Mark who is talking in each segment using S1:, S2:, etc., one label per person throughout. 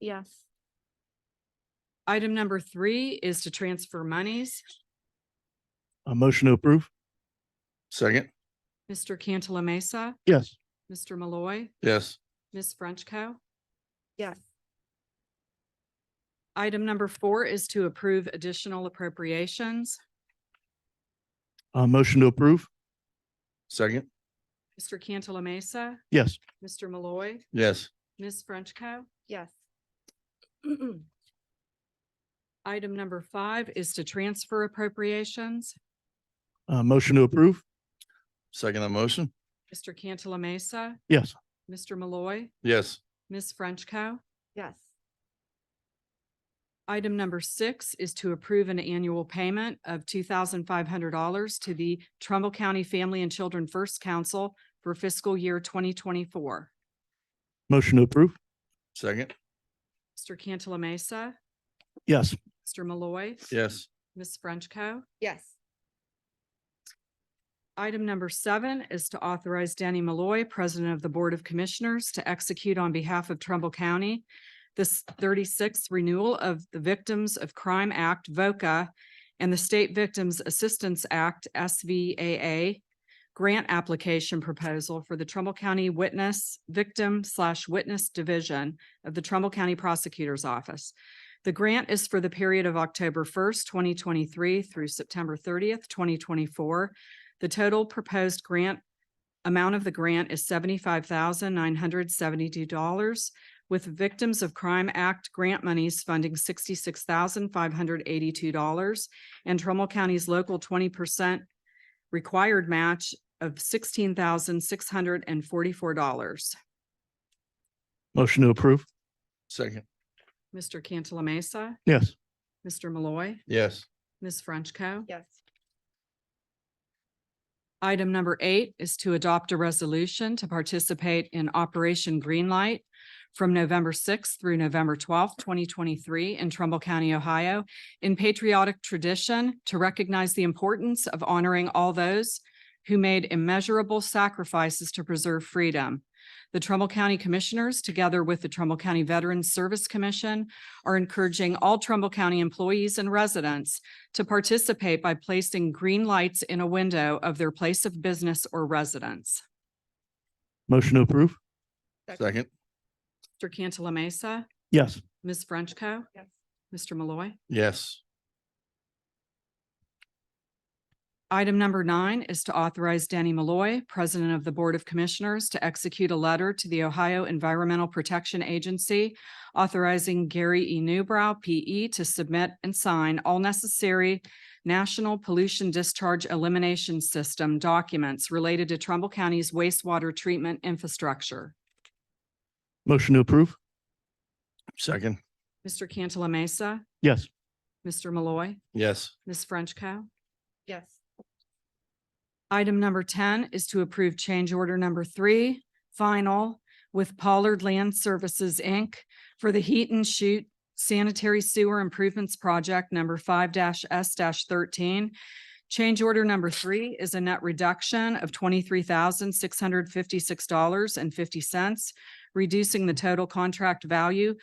S1: Yes.
S2: Item number three is to transfer monies.
S3: A motion to approve? Second.
S2: Mr. Cantala Mesa,
S3: Yes.
S2: Mr. Malloy,
S3: Yes.
S2: Ms. Frenchco.
S1: Yes.
S2: Item number four is to approve additional appropriations.
S3: A motion to approve? Second.
S2: Mr. Cantala Mesa,
S3: Yes.
S2: Mr. Malloy,
S3: Yes.
S2: Ms. Frenchco.
S1: Yes.
S2: Item number five is to transfer appropriations.
S3: A motion to approve? Second motion?
S2: Mr. Cantala Mesa,
S3: Yes.
S2: Mr. Malloy,
S3: Yes.
S2: Ms. Frenchco.
S1: Yes.
S2: Item number six is to approve an annual payment of two thousand five hundred dollars to the Trumbull County Family and Children First Council for fiscal year twenty twenty-four.
S3: Motion to approve? Second.
S2: Mr. Cantala Mesa,
S3: Yes.
S2: Mr. Malloy.
S3: Yes.
S2: Ms. Frenchco.
S1: Yes.
S2: Item number seven is to authorize Danny Malloy, President of the Board of Commissioners, to execute on behalf of Trumbull County this thirty-sixth renewal of the Victims of Crime Act, VOCA, and the State Victims Assistance Act, SVAA, grant application proposal for the Trumbull County Witness Victim slash Witness Division of the Trumbull County Prosecutor's Office. The grant is for the period of October first, twenty twenty-three through September thirtieth, twenty twenty-four, the total proposed grant amount of the grant is seventy-five thousand nine hundred seventy-two dollars, with Victims of Crime Act grant monies funding sixty-six thousand five hundred eighty-two dollars and Trumbull County's local twenty percent required match of sixteen thousand six hundred and forty-four dollars.
S3: Motion to approve? Second.
S2: Mr. Cantala Mesa,
S3: Yes.
S2: Mr. Malloy,
S3: Yes.
S2: Ms. Frenchco.
S1: Yes.
S2: Item number eight is to adopt a resolution to participate in Operation Greenlight from November sixth through November twelfth, twenty twenty-three in Trumbull County, Ohio, in patriotic tradition to recognize the importance of honoring all those who made immeasurable sacrifices to preserve freedom. The Trumbull County Commissioners, together with the Trumbull County Veterans Service Commission, are encouraging all Trumbull County employees and residents to participate by placing green lights in a window of their place of business or residence.
S3: Motion to approve?
S2: Mr. Cantala Mesa,
S3: Yes.
S2: Ms. Frenchco.
S1: Yes.
S2: Mr. Malloy.
S3: Yes.
S2: Item number nine is to authorize Danny Malloy, President of the Board of Commissioners, to execute a letter to the Ohio Environmental Protection Agency authorizing Gary E. Newbrow, P.E., to submit and sign all necessary National Pollution Discharge Elimination System documents related to Trumbull County's wastewater treatment infrastructure.
S3: Motion to approve? Second.
S2: Mr. Cantala Mesa,
S3: Yes.
S2: Mr. Malloy,
S3: Yes.
S2: Ms. Frenchco.
S1: Yes.
S2: Item number ten is to approve change order number three, final, with Pollard Land Services, Inc. for the Heat and Shoot Sanitary Sewer Improvements Project number five S thirteen. Change order number three is a net reduction of twenty-three thousand, six hundred fifty-six dollars and fifty cents, reducing the total contract value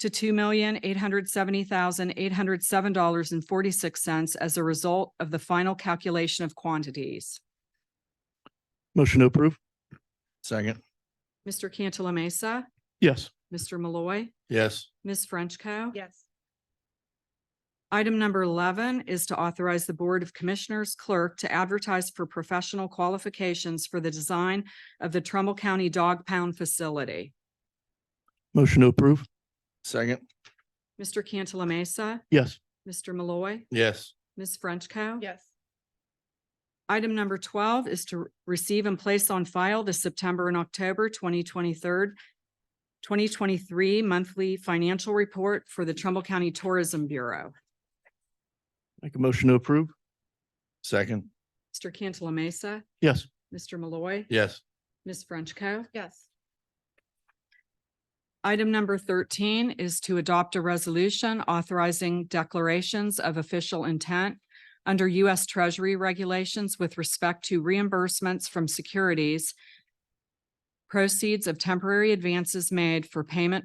S2: to two million, eight hundred seventy thousand, eight hundred seven dollars and forty-six cents as a result of the final calculation of quantities.
S3: Motion to approve? Second.
S2: Mr. Cantala Mesa,
S3: Yes.
S2: Mr. Malloy,
S3: Yes.
S2: Ms. Frenchco.
S1: Yes.
S2: Item number eleven is to authorize the Board of Commissioners clerk to advertise for professional qualifications for the design of the Trumbull County Dog Pound Facility.
S3: Motion to approve? Second.
S2: Mr. Cantala Mesa,
S3: Yes.
S2: Mr. Malloy,
S3: Yes.
S2: Ms. Frenchco.
S1: Yes.
S2: Item number twelve is to receive and place on file the September and October twenty twenty-third, twenty twenty-three monthly financial report for the Trumbull County Tourism Bureau.
S3: Make a motion to approve? Second.
S2: Mr. Cantala Mesa,
S3: Yes.
S2: Mr. Malloy,
S3: Yes.
S2: Ms. Frenchco.
S1: Yes.
S2: Item number thirteen is to adopt a resolution authorizing declarations of official intent under U.S. Treasury regulations with respect to reimbursements from securities, proceeds of temporary advances made for payment